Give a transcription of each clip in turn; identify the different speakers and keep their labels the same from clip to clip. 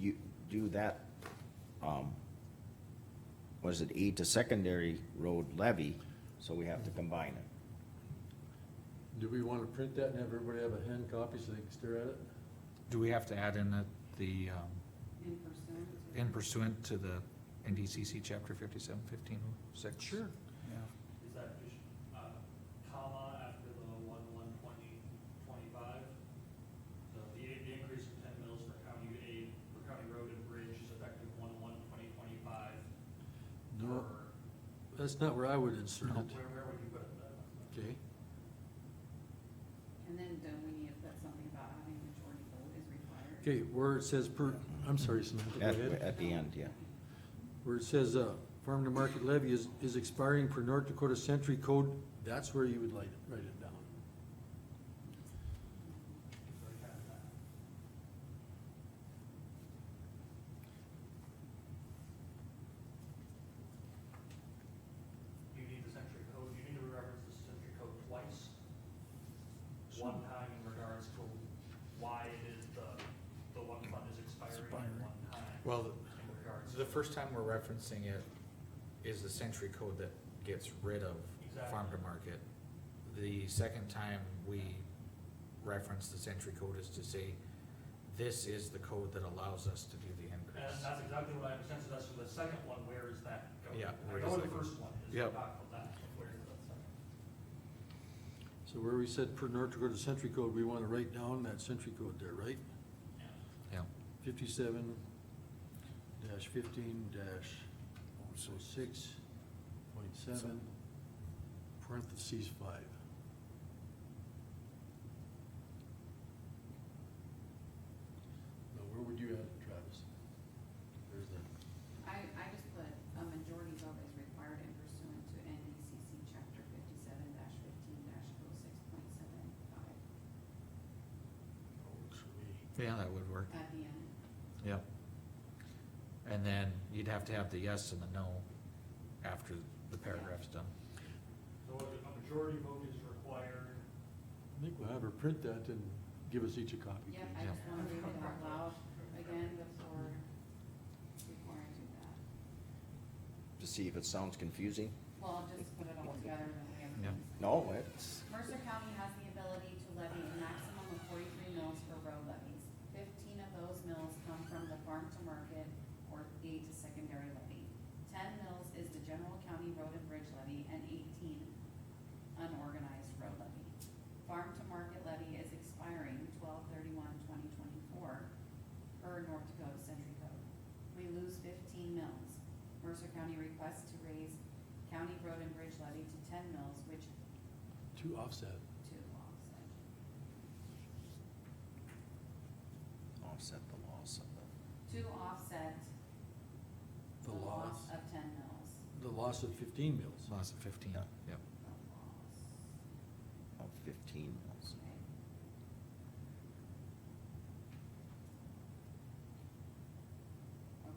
Speaker 1: you do that, um, was it E to secondary road levy, so we have to combine it.
Speaker 2: Do we wanna print that and have everybody have a hand copy so they can stare at it?
Speaker 3: Do we have to add in that the, um,
Speaker 4: in pursuit.
Speaker 3: in pursuant to the NDCC chapter fifty-seven fifteen oh six? Sure.
Speaker 5: Is that just, uh, comma after the one, one, twenty, twenty-five? So the, the increase of ten mils for county aid, for county road and bridge is effective one, one, twenty, twenty-five.
Speaker 2: No,
Speaker 5: Or
Speaker 2: that's not where I would insert it,
Speaker 5: Where, where would you put it then?
Speaker 2: okay?
Speaker 4: And then don't we need to put something about having majority vote is required?
Speaker 2: Okay, where it says per, I'm sorry, Samantha, go
Speaker 1: At,
Speaker 2: ahead.
Speaker 1: at the end, yeah.
Speaker 2: Where it says, uh, farm to market levy is, is expiring per North Dakota Century Code, that's where you would write it, write it down.
Speaker 5: So you have that. You need the century code, you need to reference the century code twice. One time in regards to why it is the, the one fund is expiring and one time
Speaker 3: Well,
Speaker 5: in regards.
Speaker 3: the first time we're referencing it is the century code that gets rid of farm to market. The second time we reference the century code is to say, this is the code that allows us to do the
Speaker 5: And
Speaker 3: increase.
Speaker 5: that's exactly what I understand, so that's for the second one, where is that going?
Speaker 3: Yeah,
Speaker 5: I
Speaker 3: where
Speaker 5: know
Speaker 3: is
Speaker 5: what
Speaker 3: that
Speaker 5: the
Speaker 3: going?
Speaker 5: first one is, we
Speaker 3: Yep.
Speaker 5: talked about that, but where is that second?
Speaker 2: So where we said per North Dakota Century Code, we wanna write down that century code there, right?
Speaker 5: Yeah.
Speaker 3: Yeah,
Speaker 2: Fifty-seven dash fifteen dash oh six point seven, parentheses five. Now, where would you add it, Travis? There's the,
Speaker 4: I, I just put a majority vote is required in pursuant to NDCC chapter fifty-seven fifteen dash oh six point seven five
Speaker 2: oh, it's me.
Speaker 3: yeah, that would work,
Speaker 4: at the end.
Speaker 3: yeah. And then you'd have to have the yes and the no after the paragraph's done.
Speaker 5: So a majority vote is required
Speaker 2: I think we'll have her print that and give us each a copy.
Speaker 4: Yep, I
Speaker 2: please.
Speaker 4: just wanna read it out loud again before, before I do that.
Speaker 1: To see if it sounds confusing.
Speaker 4: Well, I'll just put it all together and then we
Speaker 3: Yep.
Speaker 4: have. things.
Speaker 1: No, it's,
Speaker 4: Mercer County has the ability to levy a maximum of forty-three mills for road levies. Fifteen of those mills come from the farm to market or aid to secondary levy. Ten mills is the general county road and bridge levy and eighteen unorganized road levy. Farm to market levy is expiring 1231-2024 per North Dakota Century Code. We lose fifteen mills. Mercer County requests to raise county road and bridge levy to ten mills, which
Speaker 2: To offset.
Speaker 4: to offset.
Speaker 1: offset the loss of
Speaker 4: To offset
Speaker 2: The
Speaker 4: the
Speaker 2: loss.
Speaker 4: loss of ten mills.
Speaker 2: The loss of fifteen mills.
Speaker 3: Lots of fifteen,
Speaker 1: Yeah.
Speaker 3: yep.
Speaker 4: The loss,
Speaker 1: the, of fifteen mills.
Speaker 4: okay. Okay,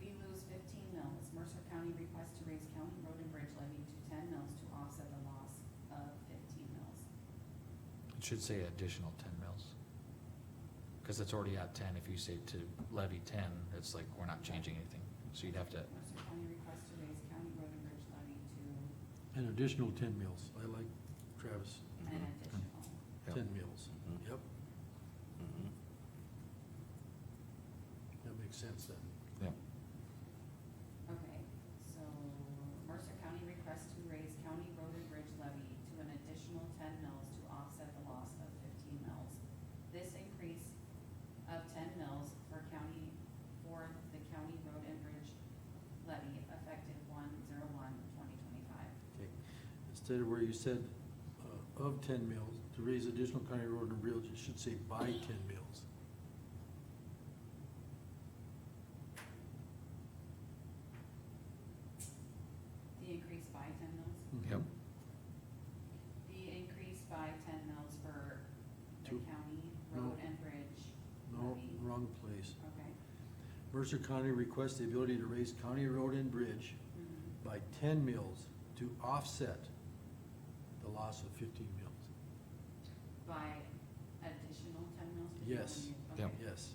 Speaker 4: we lose fifteen mills. Mercer County requests to raise county road and bridge levy to ten mills to offset the loss of fifteen mills.
Speaker 3: It should say additional ten mils. Cause it's already at ten, if you say to levy ten, it's like, we're not changing anything, so you'd have to,
Speaker 4: Mercer County requests to raise county road and bridge levy to
Speaker 2: An additional ten mills. I like Travis,
Speaker 4: an
Speaker 1: Mhm,
Speaker 4: additional.
Speaker 3: yeah.
Speaker 2: ten mills.
Speaker 1: mhm,
Speaker 2: Yep,
Speaker 1: mhm.
Speaker 2: that makes sense then.
Speaker 4: Okay, so Mercer County requests to raise county road and bridge levy to an additional ten mills to offset the loss of fifteen mills. This increase of ten mills for county, for the county road and bridge levy effective one zero one twenty twenty-five.
Speaker 2: Okay, instead of where you said, uh, of ten mills, to raise additional county road and bridge, it should say by ten mills.
Speaker 4: The increase by ten mills?
Speaker 3: Yep.
Speaker 4: The increase by ten mills for the
Speaker 2: Two.
Speaker 4: county
Speaker 2: No.
Speaker 4: road and bridge
Speaker 2: No,
Speaker 4: levy,
Speaker 2: wrong place.
Speaker 4: okay?
Speaker 2: Mercer County requests the ability to raise county road and bridge
Speaker 4: Mhm.
Speaker 2: by ten mills to offset the loss of fifteen mills.
Speaker 4: By additional ten mills?
Speaker 2: Yes.
Speaker 4: Okay.
Speaker 3: Yep.
Speaker 2: Yes,